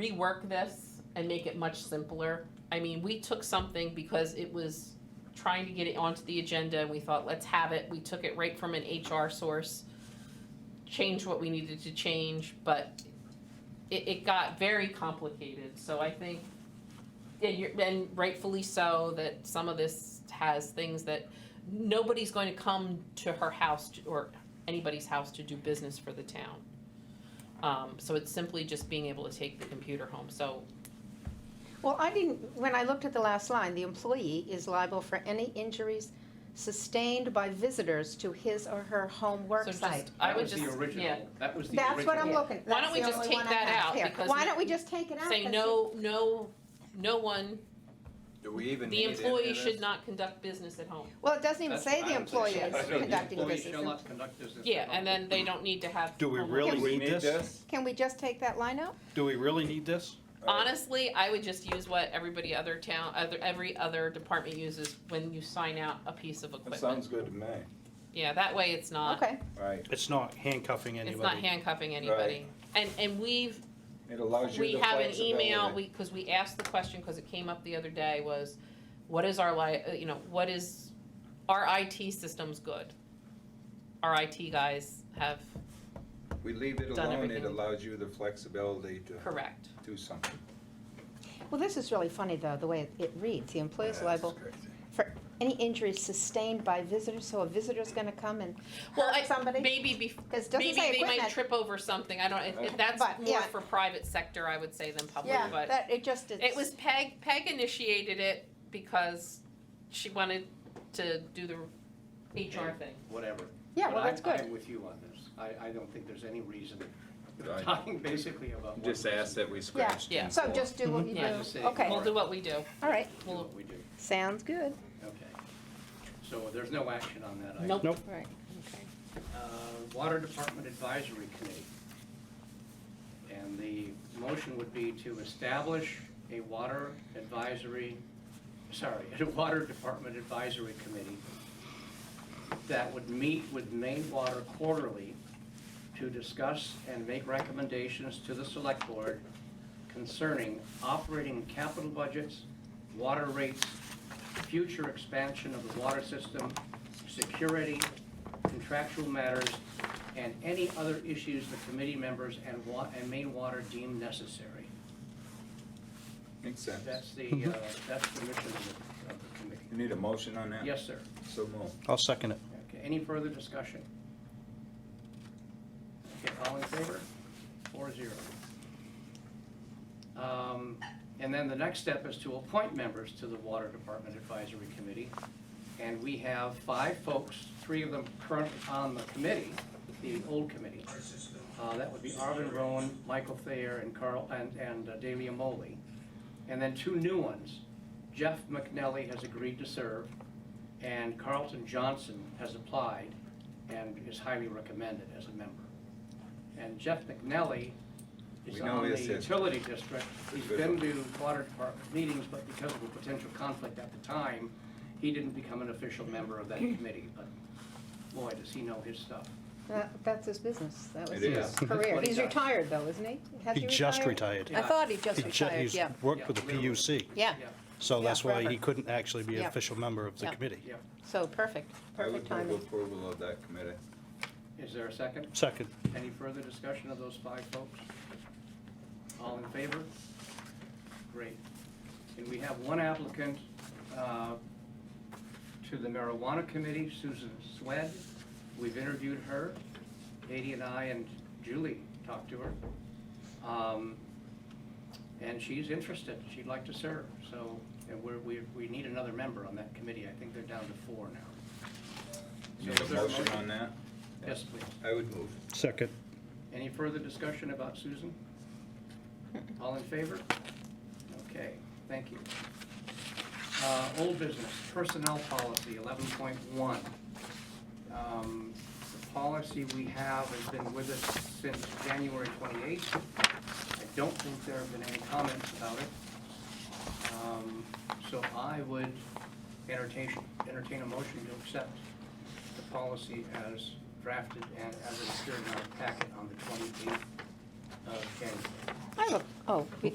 rework this and make it much simpler. I mean, we took something because it was trying to get it onto the agenda and we thought, let's have it. We took it right from an HR source, changed what we needed to change, but it, it got very complicated. So I think, and you're, and rightfully so, that some of this has things that nobody's going to come to her house to- or anybody's house to do business for the town. Um, so it's simply just being able to take the computer home, so, Well, I didn't, when I looked at the last line, the employee is liable for any injuries sustained by visitors to his or her home work so site. just, I would just, That was the yeah. original, that was the original. That's what I'm looking, Why don't that's we the just only take one I that have out? here. Because Why we- don't we just take it out? Say 'Cause no, no, no one, Do we even the need any of employee this? should not conduct business at home. it- Well, it doesn't even That's say what the I would say. employee is The conducting employee shall business. not conduct business Yeah, alone. and then they don't need to have. Do we home really office. Do we need need this? this? Can we just take that line out? Do we really need this? Honestly, I would just use what everybody other town, other, every other department uses when you sign out a piece of That equipment. sounds good to me. Yeah, that way it's not, Okay, Right. It's not handcuffing it's not anybody. handcuffing anybody. And, and we've It allows you We the have an flexibility. email, we, because we asked the question, because it came up the other day, was, what is our li, uh, you know, what is, our IT system's good? Our IT guys have, We leave it done alone, it everything. allows you the flexibility to correct, do something. well, this is really funny, though, the way it- it reads. The employee is That's liable crazy. for any injuries sustained by visitors, so a visitor's gonna come and Well, I- hurt somebody? maybe be, 'Cause it maybe doesn't say they might equipment. trip over something, I don't, if- if Uh, that's But, more yeah. for private sector, I would say than public, Yeah, but. that, it just, it's. It was Peg, Peg initiated it because she wanted to do the HR thing. Whatever. Yeah, But well, I'm- that's good. I'm with you on this. I, I don't think there's any reason, we're Right. talking basically about. one Just ask person. that we scratch Yeah. ten So four. just do what you Yeah. Just do, say okay, We'll all more. do what we do. right, Do what we do, sounds good. okay. So there's no action on that item. Nope. Nope. Right, okay. Uh, Water Department Advisory Committee. And the motion would be to establish a water advisory, sorry, a Water Department Advisory Committee that would meet with Maine Water quarterly to discuss and make recommendations to the select board concerning operating capital budgets, water rates, future expansion of the water system, security, contractual matters, and any other issues the committee members and wa, and Maine Water deem necessary. Makes sense. That's the, uh, that's the mission of the, of the committee. You need a motion on that? Yes, sir. So move. I'll second it. Okay, any further discussion? Okay, all in favor? Four zero. Um, and then the next step is to appoint members to the Water Department Advisory Committee. And we have five folks, three of them currently on the committee, the old committee. Uh, that would be Arvin Rowan, Michael Thayer, and Carl, and, and uh, Delia Moley. And then two new ones. Jeff McNelly has agreed to serve, and Carlton Johnson has applied and is highly recommended as a member. And Jeff McNelly is We know on he the is his. utility district. He's Good been one. to water department meetings, but because of a potential conflict at the time, he didn't become an official member of that committee, but boy, does he know his stuff. That, that's his business, that was It his is. career. What he He's does. retired though, isn't he? Has He just retired. I thought he just He ju- retired, He's yeah, worked with the PUC, yeah, Yeah, so Yeah, that's why he forever. couldn't actually be an Yeah. official member of the Yeah. committee. yeah. so perfect, I perfect would move timing. approval of that committee. Is there a second? Second. Any further discussion of those five folks? All in favor? Great. And we have one applicant uh, to the marijuana committee, Susan Swed. We've interviewed her. Katie and I and Julie talked to her. Um, And she's interested. She'd like to serve, so, and we're, we, we need another member on that committee. I think they're down to four now. So Need is a there a motion on that? Yes, please. I would move. Second. Any further discussion about Susan? All in favor? Okay, thank you. Uh, Old business, personnel policy, eleven point one. Um, The policy we have has been with us since January twenty-eighth. I don't think there have been any comments about it. Um, So I would entertain, entertain a motion to accept the policy as drafted and as it appeared in our packet on the twenty-eighth of January. I have a, oh, we-